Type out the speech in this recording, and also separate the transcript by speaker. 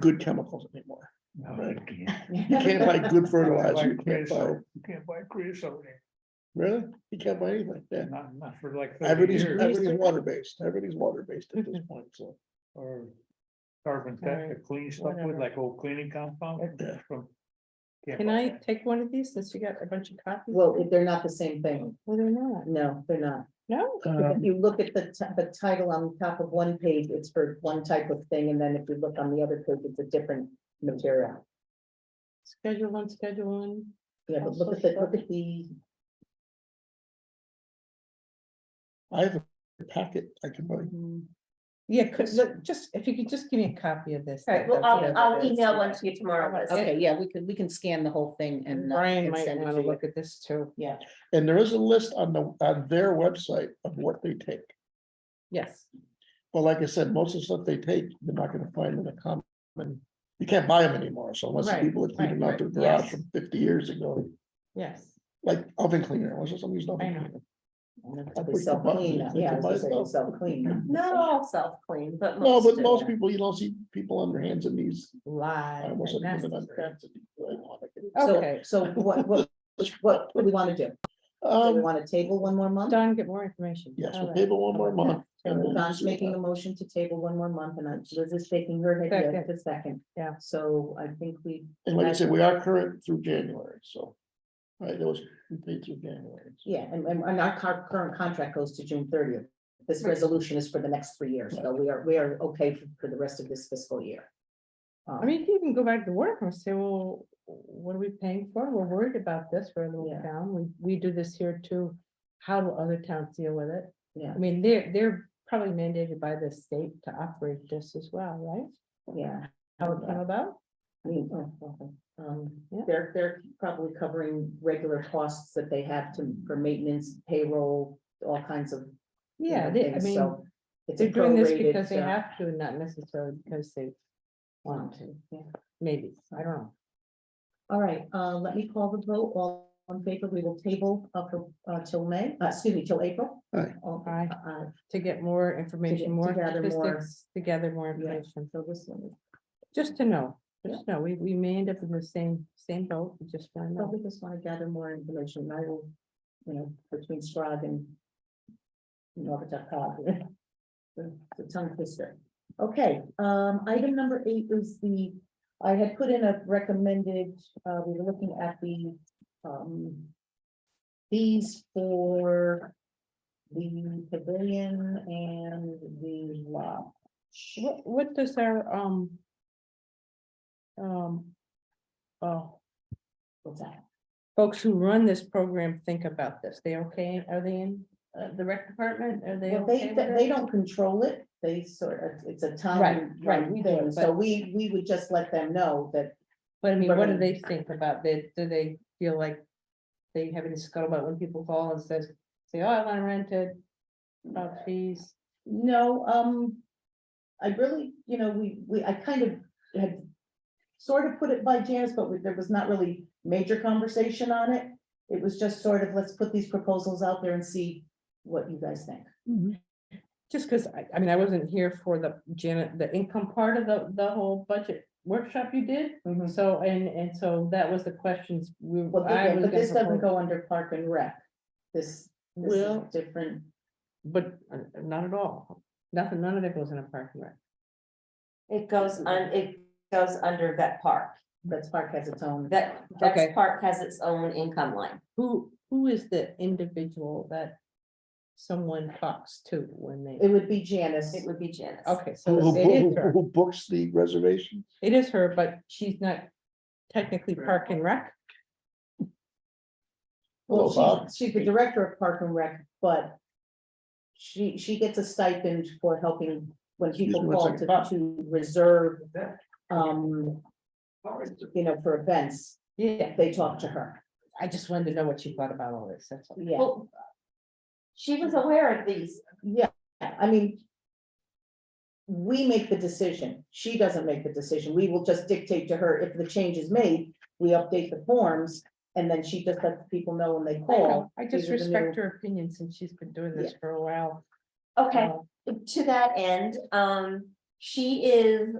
Speaker 1: good chemicals anymore. Right.
Speaker 2: You
Speaker 1: You can't buy good fertilizer, you can't buy,
Speaker 2: can't buy creosote,
Speaker 1: really, you can't buy anything, yeah.
Speaker 2: not, not for like thirty
Speaker 1: Everybody's,
Speaker 2: years,
Speaker 1: everybody's water based, everybody's water based at this point, so.
Speaker 2: or carbon tech, the clean stuff with
Speaker 3: whatever.
Speaker 2: like old cleaning compound.
Speaker 1: Yeah.
Speaker 2: from- can't
Speaker 3: Can
Speaker 2: buy
Speaker 3: I
Speaker 2: that.
Speaker 3: take one of these since you got a bunch of copies?
Speaker 4: Well, if they're not the same thing.
Speaker 3: Well, they're not.
Speaker 4: No, they're not.
Speaker 3: No,
Speaker 4: If
Speaker 1: Um,
Speaker 4: you look at the, ti- the title on top of one page, it's for one type of thing, and then if you look on the other page, it's a different material.
Speaker 3: schedule one, schedule one.
Speaker 4: Yeah, but look at the, look at the,
Speaker 1: I have a packet I can buy.
Speaker 3: Mm. Yeah, cause look, just, if you could just give me a copy of this.
Speaker 5: All right,
Speaker 3: that-
Speaker 5: well,
Speaker 3: that's
Speaker 5: I'll,
Speaker 3: what
Speaker 5: I'll
Speaker 3: it is.
Speaker 5: email one to you tomorrow. Liz.
Speaker 4: okay, yeah, we could, we can scan the whole thing and. uh,
Speaker 3: Brian
Speaker 4: and
Speaker 3: might
Speaker 4: send it
Speaker 3: wanna
Speaker 4: to you.
Speaker 3: look at this too.
Speaker 4: Yeah,
Speaker 1: And there is a list on the, on their website of what they take.
Speaker 3: Yes,
Speaker 1: But like I said, most of the stuff they take, you're not gonna find in a common, you can't buy them anymore, so unless the
Speaker 3: Right,
Speaker 1: people that cleaned them out
Speaker 3: right,
Speaker 1: their
Speaker 3: right,
Speaker 1: garage
Speaker 3: yes.
Speaker 1: from fifty years ago.
Speaker 3: yes.
Speaker 1: Like oven cleaner, was there somebody's oven
Speaker 3: I know.
Speaker 1: cleaner? I
Speaker 4: They
Speaker 1: put the
Speaker 4: self-clean,
Speaker 1: buttons,
Speaker 4: yeah, I
Speaker 1: they
Speaker 4: was gonna say they
Speaker 1: buy
Speaker 4: self-clean.
Speaker 5: Not all self-clean, but
Speaker 1: No,
Speaker 5: most.
Speaker 1: but
Speaker 5: do.
Speaker 1: most people, you don't see people on their hands and knees. I
Speaker 3: Live.
Speaker 1: almost
Speaker 3: and
Speaker 1: said
Speaker 3: nasty
Speaker 1: women on their
Speaker 3: stuff.
Speaker 1: hands and knees, but I want it.
Speaker 4: So,
Speaker 3: Okay.
Speaker 4: so what, what, what do we want to do? Do we
Speaker 1: Um,
Speaker 4: want to table one more month?
Speaker 3: Don, get more information.
Speaker 1: yes,
Speaker 3: All
Speaker 1: we'll
Speaker 3: right.
Speaker 1: table one more month. and then
Speaker 4: Don's
Speaker 1: we'll see
Speaker 4: making a
Speaker 1: about
Speaker 4: motion to table one more month, and I'm- Liz is shaking her head yes
Speaker 3: Second.
Speaker 4: to second.
Speaker 3: Yeah.
Speaker 4: So I think we
Speaker 1: it. And like I said, we are current through January, so. Right, that was, we paid through January. so.
Speaker 4: Yeah, and, and and our cur- current contract goes to June thirtieth. This resolution is for the next three years, so we are, we are okay for, for the rest of this fiscal year. Um,
Speaker 3: I mean, you can go back to work and say, well, what are we paying for? We're worried about this. We're a little
Speaker 4: Yeah.
Speaker 3: town. We, we do this here too. How will other towns deal with it?
Speaker 4: Yeah.
Speaker 3: I mean, they're, they're probably mandated by the state to operate this as well,
Speaker 4: Yeah,
Speaker 3: right? How it came about?
Speaker 4: I mean, oh, okay. um,
Speaker 3: Yeah.
Speaker 4: they're, they're probably covering regular costs that they have to, for maintenance, payroll, all kinds of. you know,
Speaker 3: Yeah, they, I
Speaker 4: things,
Speaker 3: mean,
Speaker 4: so it's a
Speaker 3: they're doing this
Speaker 4: prorated,
Speaker 3: because they
Speaker 4: uh,
Speaker 3: have to, and not necessarily because they want to,
Speaker 4: yeah.
Speaker 3: maybe. I don't know.
Speaker 4: All right, uh, let me call the vote. All on favor, we will table up uh, till May, uh, excuse me, till April.
Speaker 1: Aye.
Speaker 4: All-
Speaker 3: Aye.
Speaker 4: uh,
Speaker 3: To get more information,
Speaker 4: to
Speaker 3: more
Speaker 4: gather more-
Speaker 3: statistics, to gather more
Speaker 4: Yeah.
Speaker 3: information,
Speaker 4: So this one.
Speaker 3: just to know, just know, we, we may end up in the same, same boat, we just want to know.
Speaker 4: Probably just want to gather more information, and I will, you know, between Strag and. Norbert Todd. The the tongue twister. Okay, um, item number eight is the, I had put in a recommended, uh, we were looking at the, um. These for the pavilion and the lodge.
Speaker 3: What, what does our, um, um, oh,
Speaker 4: What's that?
Speaker 3: folks who run this program think about this? They okay? Are they in uh, the rec department? Are they
Speaker 4: Well, they,
Speaker 3: okay with
Speaker 4: they they
Speaker 3: it?
Speaker 4: don't control it, they sort of, it's a time.
Speaker 3: right,
Speaker 4: run
Speaker 3: we do,
Speaker 4: thing, So
Speaker 3: but-
Speaker 4: we, we would just let them know that,
Speaker 3: But I mean, what do
Speaker 4: Right.
Speaker 3: they think about that? Do they feel like they have any scuttlebutt when people call and says, say, oh, I want to rent it? About fees,
Speaker 4: no, um. I really, you know, we, we, I kind of had sort of put it by Janice, but we- there was not really major conversation on it. It was just sort of, let's put these proposals out there and see what you guys think.
Speaker 3: just because I, I mean, I wasn't here for the Janet, the income part of the, the whole budget workshop you did. So, and, and so that was the questions we.
Speaker 4: Well,
Speaker 3: I
Speaker 4: thi-
Speaker 3: was
Speaker 4: but
Speaker 3: gonna
Speaker 4: this doesn't
Speaker 3: propose.
Speaker 4: go under park and rec. This, this is
Speaker 3: Well-
Speaker 4: different,
Speaker 3: But uh, not at all. Nothing, none of it goes in a parking lot.
Speaker 5: It goes on, it goes under vet park.
Speaker 4: that's park has its own.
Speaker 5: Vet,
Speaker 3: Okay.
Speaker 5: vet park has its own income line.
Speaker 3: Who, who is the individual that someone talks to when
Speaker 4: It
Speaker 3: they,
Speaker 4: would be Janice.
Speaker 5: It would be Janice.
Speaker 3: okay,
Speaker 1: Who,
Speaker 3: so it
Speaker 1: who-
Speaker 3: is her.
Speaker 1: who books the reservation?
Speaker 3: It is her, but she's not technically park and rec.
Speaker 1: Hello,
Speaker 4: Well,
Speaker 1: Bob.
Speaker 4: she's, she's the director of Park and Rec, but she, she gets a stipend for helping when
Speaker 1: Excuse
Speaker 4: people
Speaker 1: me one
Speaker 4: call
Speaker 1: second,
Speaker 4: to, to reserve, um, you know, for events,
Speaker 3: Yeah,
Speaker 4: they talk to her,
Speaker 3: I just wanted to know what you thought about all this, that's all.
Speaker 4: yeah,
Speaker 5: Well, She was aware of these.
Speaker 4: yeah, I mean, we make the decision, she doesn't make the decision, we will just dictate to her if the change is made, we update the forms, and then she just lets people know when they
Speaker 3: I
Speaker 4: call.
Speaker 3: know, Oh, I
Speaker 4: these
Speaker 3: just
Speaker 4: are the
Speaker 3: respect
Speaker 4: new-
Speaker 3: her opinion since she's been doing this for a while.
Speaker 5: Okay,
Speaker 3: Uh,
Speaker 5: to that end, um, she is